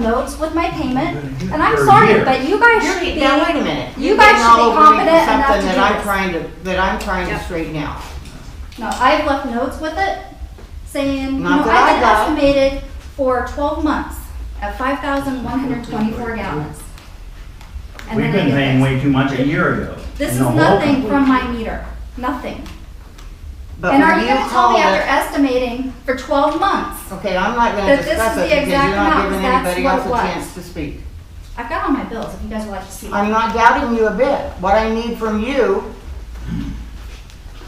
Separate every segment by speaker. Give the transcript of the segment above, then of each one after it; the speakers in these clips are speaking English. Speaker 1: notes with my payment, and I'm
Speaker 2: For
Speaker 1: sorry,
Speaker 2: years.
Speaker 1: but you guys
Speaker 3: You're,
Speaker 1: should be.
Speaker 3: now, wait a minute.
Speaker 1: you
Speaker 3: You're
Speaker 1: guys
Speaker 3: getting
Speaker 1: should
Speaker 3: all
Speaker 1: be
Speaker 3: over me for
Speaker 1: confident enough to
Speaker 3: Something
Speaker 1: do
Speaker 3: that I'm
Speaker 1: this.
Speaker 3: trying to, that I'm trying to
Speaker 4: Yep.
Speaker 3: straighten out.
Speaker 1: No, I've left notes with it saying, you know,
Speaker 3: Not that I got.
Speaker 1: I've been estimated for twelve months at five thousand one hundred twenty-four gallons. And
Speaker 2: We've
Speaker 1: then I
Speaker 2: been
Speaker 1: get
Speaker 2: paying
Speaker 1: this.
Speaker 2: way too much a year ago.
Speaker 1: This
Speaker 2: in
Speaker 1: is
Speaker 2: the whole
Speaker 1: nothing
Speaker 2: company.
Speaker 1: from my meter, nothing.
Speaker 3: But
Speaker 1: And are
Speaker 3: when
Speaker 1: you
Speaker 3: you
Speaker 1: gonna tell
Speaker 3: call
Speaker 1: me after
Speaker 3: it,
Speaker 1: estimating for twelve months?
Speaker 3: okay, I'm not gonna
Speaker 1: that this is
Speaker 3: discuss
Speaker 1: the
Speaker 3: it because
Speaker 1: exact
Speaker 3: you're not
Speaker 1: amount,
Speaker 3: giving
Speaker 1: that's
Speaker 3: anybody
Speaker 1: what
Speaker 3: else
Speaker 1: it
Speaker 3: a
Speaker 1: was.
Speaker 3: chance to speak.
Speaker 1: I've got all my bills, if you guys would like to see. them.
Speaker 3: I'm not doubting you a bit. What I need from you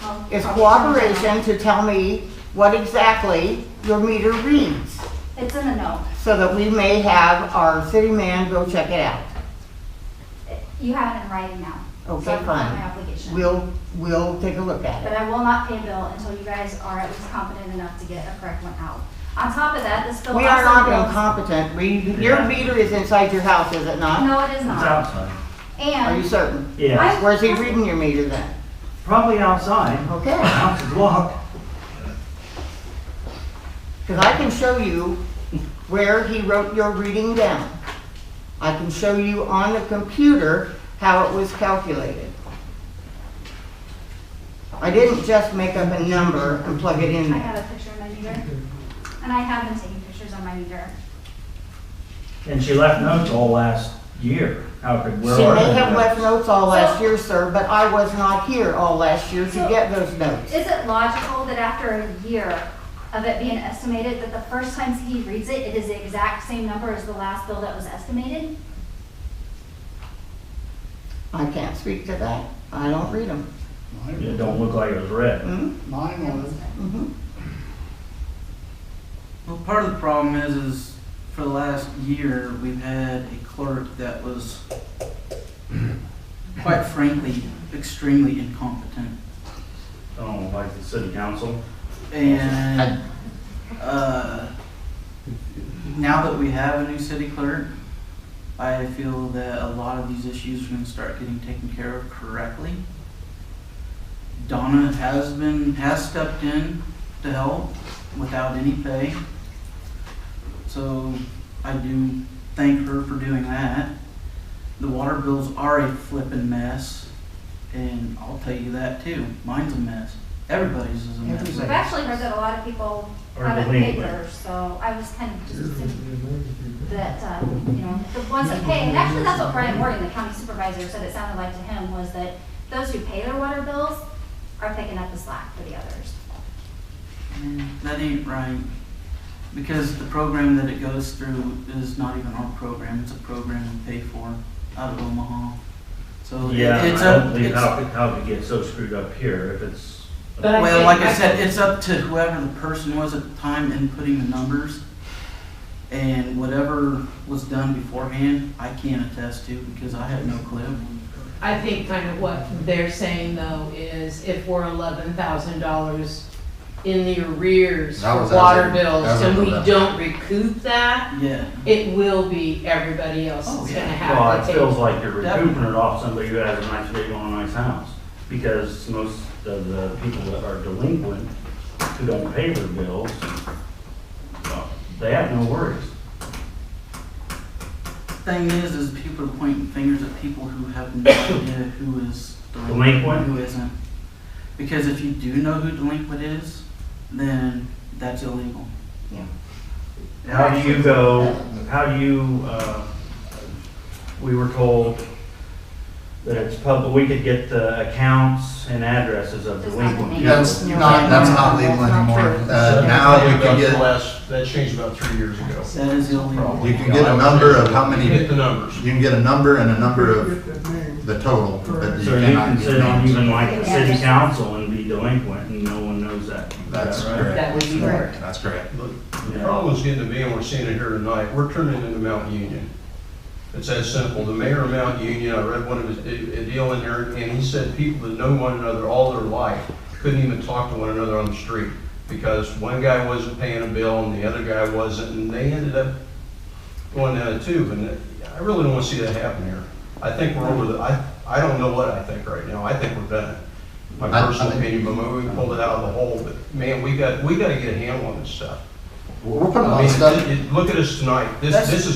Speaker 1: I'll probably turn it
Speaker 3: is
Speaker 1: down.
Speaker 3: cooperation to tell me what exactly your meter reads,
Speaker 1: It's in the note.
Speaker 3: so that we may have our city man go check it out.
Speaker 1: You have it in writing now. so
Speaker 3: Okay,
Speaker 1: I've got My
Speaker 3: fine.
Speaker 1: application.
Speaker 3: We'll, we'll take a look at
Speaker 1: But
Speaker 3: it.
Speaker 1: I will not pay a bill until you guys are at least competent enough to get a correct one out. On top of that, this bill
Speaker 3: We are
Speaker 1: also
Speaker 3: not
Speaker 1: bills-
Speaker 3: incompetent. We, your meter is inside your house, is it not?
Speaker 1: No, it is
Speaker 2: It's
Speaker 1: not.
Speaker 2: outside.
Speaker 3: Are you
Speaker 1: And
Speaker 3: certain?
Speaker 2: Yes,
Speaker 1: I-
Speaker 3: Where's he reading your meter then?
Speaker 2: probably outside.
Speaker 3: Okay.
Speaker 2: House is locked.
Speaker 3: Because I can show you where he wrote your reading down. I can show you on the computer how it was calculated. I didn't just make up a number and plug it in
Speaker 1: I
Speaker 3: there.
Speaker 1: have a picture of my meter. And I have been taking pictures on my meter.
Speaker 2: And she left notes all last year. How could,
Speaker 3: She
Speaker 2: where are
Speaker 3: may
Speaker 2: the
Speaker 3: have
Speaker 2: notes?
Speaker 3: left notes all last year, sir, but I was not here all last year to get those notes.
Speaker 1: Is it logical that after a year of it being estimated, that the first time he reads it, it is the exact same number as the last bill that was estimated?
Speaker 3: I can't speak to that. I don't read Mm-hmm. them.
Speaker 2: It don't look like it was red.
Speaker 5: Mine was,
Speaker 3: Mhm.
Speaker 6: Well, part of the problem is, is for the last year, we've had a clerk that was, quite frankly, extremely incompetent.
Speaker 2: Oh, like the city council.
Speaker 6: And, uh, now that we have a new city clerk, I feel that a lot of these issues are gonna start getting taken care of correctly. Donna has been, has stepped in to help without any pay. So I do thank her for doing that. The water bills are a flippin' mess, and I'll tell you that too. Mine's a mess. Everybody's is a mess.
Speaker 1: I've
Speaker 3: Everybody.
Speaker 1: actually heard that a lot of people
Speaker 2: Are
Speaker 1: haven't paid
Speaker 2: delinquent.
Speaker 1: theirs, so I was kind of just, that, uh, you know, the ones that pay, and actually that's what Brian Morgan, the county supervisor, said it sounded like to him, was that those who pay their water bills are picking up the slack for the others.
Speaker 6: Man, That ain't right. Because the program that it goes through is not even our program, it's a program we pay for out of Omaha. So it-
Speaker 2: Yeah, I
Speaker 6: it's
Speaker 2: don't
Speaker 6: up,
Speaker 2: believe
Speaker 6: it's,
Speaker 2: how, how it get so screwed up here if it's.
Speaker 4: But I
Speaker 6: well, like
Speaker 4: think-
Speaker 6: I said, it's up to whoever the person was at the time inputting the numbers. And whatever was done beforehand, I can't attest to because I have no clue.
Speaker 4: I think kind of what they're saying though is if we're eleven thousand dollars in the arrears
Speaker 7: That
Speaker 4: for
Speaker 7: was as
Speaker 4: water
Speaker 7: of-
Speaker 4: bills
Speaker 7: as of
Speaker 4: and we
Speaker 7: November.
Speaker 4: don't recoup that,
Speaker 6: Yeah,
Speaker 4: it will be everybody else that's
Speaker 6: Oh,
Speaker 4: gonna
Speaker 6: yeah.
Speaker 2: Well, it
Speaker 4: have to pay.
Speaker 2: feels like you're
Speaker 6: Definitely.
Speaker 2: recouping it off somebody who has a nice vehicle and a nice house. Because most of the people that are delinquent, who don't pay their bills, well, they have no worries.
Speaker 6: thing is, is people are pointing fingers at people who have no idea who is
Speaker 2: Delinquent?
Speaker 6: delinquent, and who isn't. Because if you do know who delinquent is, then that's illegal.
Speaker 2: How do you uh, go, how do you, uh, we were told that it's public, we could get the accounts and addresses of
Speaker 1: Does not
Speaker 2: delinquent
Speaker 1: make-
Speaker 2: people.
Speaker 7: That's not, that's not legal anymore. Uh, now you can
Speaker 8: That's the
Speaker 7: get,
Speaker 8: last- That changed about three years ago.
Speaker 6: That is illegal.
Speaker 7: you can get a number of how many,
Speaker 8: Hit
Speaker 7: you
Speaker 8: the numbers.
Speaker 7: can get a number and a number of the total, but you
Speaker 2: So you can
Speaker 7: cannot get
Speaker 2: sit on
Speaker 7: names.
Speaker 2: even like the city council and be delinquent and no one knows that.
Speaker 7: That's
Speaker 2: Is that right?
Speaker 4: That
Speaker 7: correct.
Speaker 4: would be correct.
Speaker 7: That's correct.
Speaker 8: The problem is getting to be, and we're seeing it here tonight, we're turning into Mount Union. It's that simple. The mayor of Mount Union, I read one of his, a deal in there, and he said people that know one another all their life couldn't even talk to one another on the street because one guy wasn't paying a bill and the other guy wasn't, and they ended up going down a tube. And I really don't want to see that happen here. I think we're over the, I, I don't know what I think right now. I think we're done. My
Speaker 7: I- I
Speaker 8: personal
Speaker 7: think-
Speaker 8: opinion, but maybe we pulled it out of the hole, but man, we got, we got to get a handle on this stuff.
Speaker 7: We're putting a
Speaker 8: I
Speaker 7: lot
Speaker 8: mean,
Speaker 7: of stuff.
Speaker 8: it- it- Look at us tonight, this,
Speaker 6: That's-
Speaker 8: this is